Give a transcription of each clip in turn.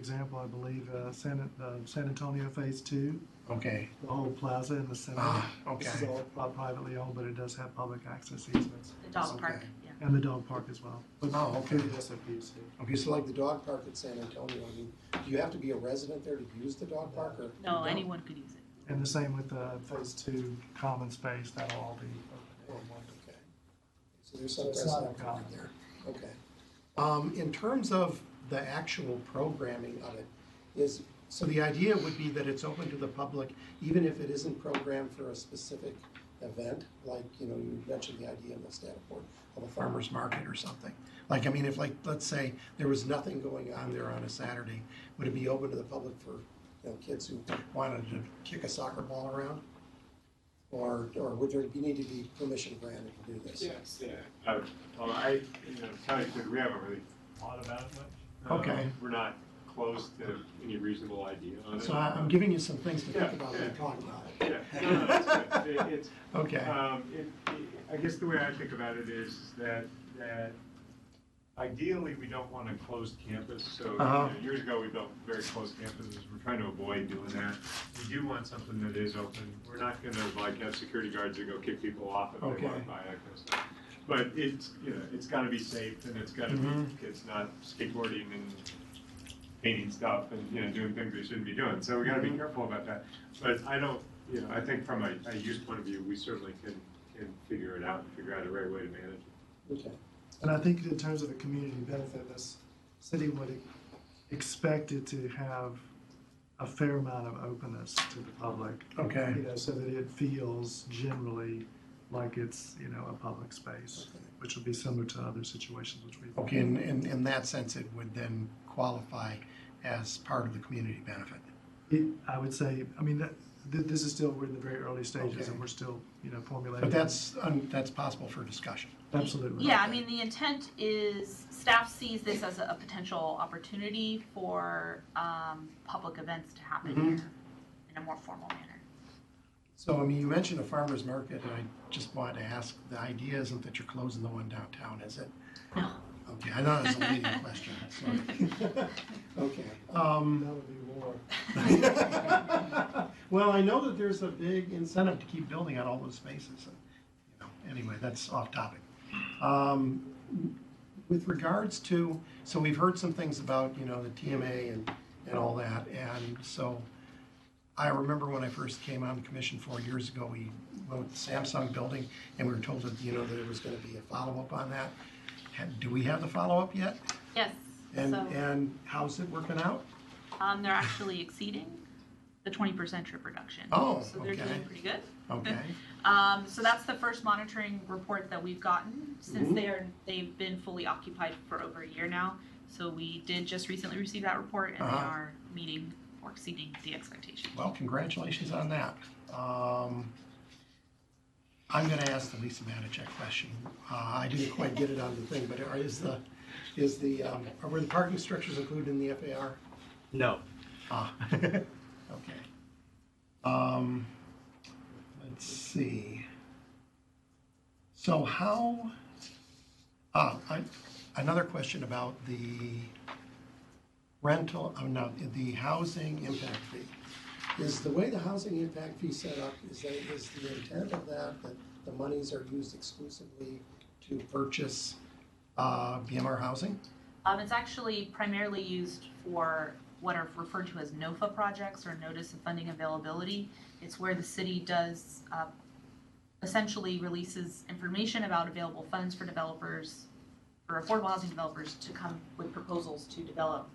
Example, I believe, uh, San, uh, San Antonio Phase Two, Okay, the whole plaza in the center. Ah, Um, This is okay. all pri- privately owned, but it does have public access easements The dog park, Okay. yeah. and the dog park as well. but Oh, okay. through the SFPC. Okay, It's so like, like the dog park at San Antonio, I mean, do you have to be a resident there to use the dog park or? No, anyone could use it. And the same with the Phase Two common space, that'll all be. Okay. So there's some So it's not resident uncommon. park there, okay. Um, in terms of the actual programming of it, is, so the idea would be that it's open to the public, even if it isn't programmed for a specific event, like, you know, you mentioned the idea in the Davenport of a farmer's farmer's market or something. Like, I mean, if like, let's say there was nothing going on there on a Saturday, would it be open to the public for, you know, kids who wanted to kick a soccer ball around? Or, or would there, you need to be permission granted to do this? Yes, yeah. Uh, Well, I, you know, county clerk, we haven't really thought about it much. Uh, Okay. We're not close to any reasonable idea on it. So I- I'm giving you some things to think Yeah, about About what we're when you talk. talking about. Yeah, no, no, it's good. It- It's, Okay, um, it, it- I guess the way I think about it is that, that ideally, we don't want a closed campus. So you Uh-huh. know, years ago, we built very closed campuses. We're trying to avoid doing that. We do want something that is open. We're not gonna like have security guards that go kick people off if they Okay. walk by, I guess. But it's, you know, it's gotta be safe and it's gotta be, Mhm. it's not skateboarding and painting stuff and, you know, doing things they shouldn't be doing. So we gotta be careful about that. But I don't, you know, I think from a, a use point of view, we certainly can, can figure it out and figure out the right way to manage it. Okay, And I think in terms of a community benefit, this city would expect it to have a fair amount of openness to the public. okay. you know, so that it feels generally like it's, you know, a public space, which would be similar to other situations which we've. Okay, in, in, in that sense, it would then qualify as part of the community benefit. It, I would say, I mean, that, th- this is still, we're in the very early stages Okay. and we're still, you know, formulating. But that's, um, that's possible for discussion. Absolutely. Yeah, I mean, the intent is, staff sees this as a potential opportunity for um, public events to happen Mhm. here in a more formal manner. So, I mean, you mentioned a farmer's market, and I just wanted to ask, the idea isn't that you're closing the one downtown, is it? No. Okay, I thought it was a leading question, sorry. okay. Um, That would be war. Well, I know that there's a big incentive to keep building on all those spaces, and, you know, anyway, that's off topic. Um, With regards to, so we've heard some things about, you know, the TMA and, and all that, and so I remember when I first came on the commission four years ago, we went with the Samsung building, and we were told that, you know, that there was gonna be a follow-up on that. Ha- Do we have the follow-up yet? Yes, And, so and how's it working out? um, they're actually exceeding the 20% trip reduction. Oh, So they're okay. doing pretty good. Okay, Um, so that's the first monitoring report that we've gotten since Mhm. they are, they've been fully occupied for over a year now. So we did just recently receive that report and they Uh-huh. are meeting or exceeding the expectation. well, congratulations on that. Um, I'm gonna ask the Lisa Matichak question. Uh, I didn't quite get it on the thing, but are- is the, is the, um, are were the parking structures included in the FAR? No. Ah, okay. Um, let's see. So how, ah, I, another question about the rental, oh no, the housing impact fee. Is the way the housing impact fee set up, is that, is the intent of that, that the monies are used exclusively to purchase uh, BMR housing? Um, it's actually primarily used for what are referred to as NOFA projects or Notice of Funding Availability. It's where the city does, uh, essentially releases information about available funds for developers, for affordable housing developers to come with proposals to develop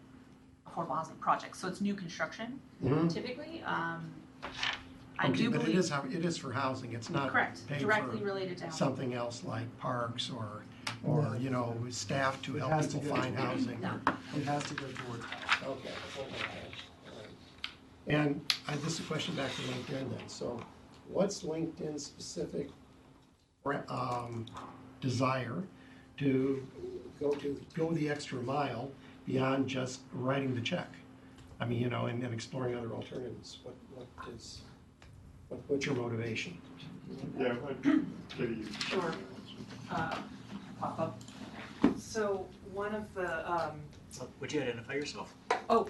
affordable housing projects. So it's new construction Mm-hmm. typically. Um, I Okay, do But it is, believe, how- it is for housing, it's not correct, paid directly for related to housing. something else like parks or, or, you know, staff to It help has to people go find to- housing. No. It has to go towards. Okay. Alright. And I, this is a question back to LinkedIn then, so So what's LinkedIn specific um, desire to go to? go the extra mile beyond just writing the check. I mean, you know, and then exploring other alternatives. What, what is, What- What's your motivation? Yeah, I'd give you- Sure. uh, pop up. So one of the, um, Would you identify yourself? oh,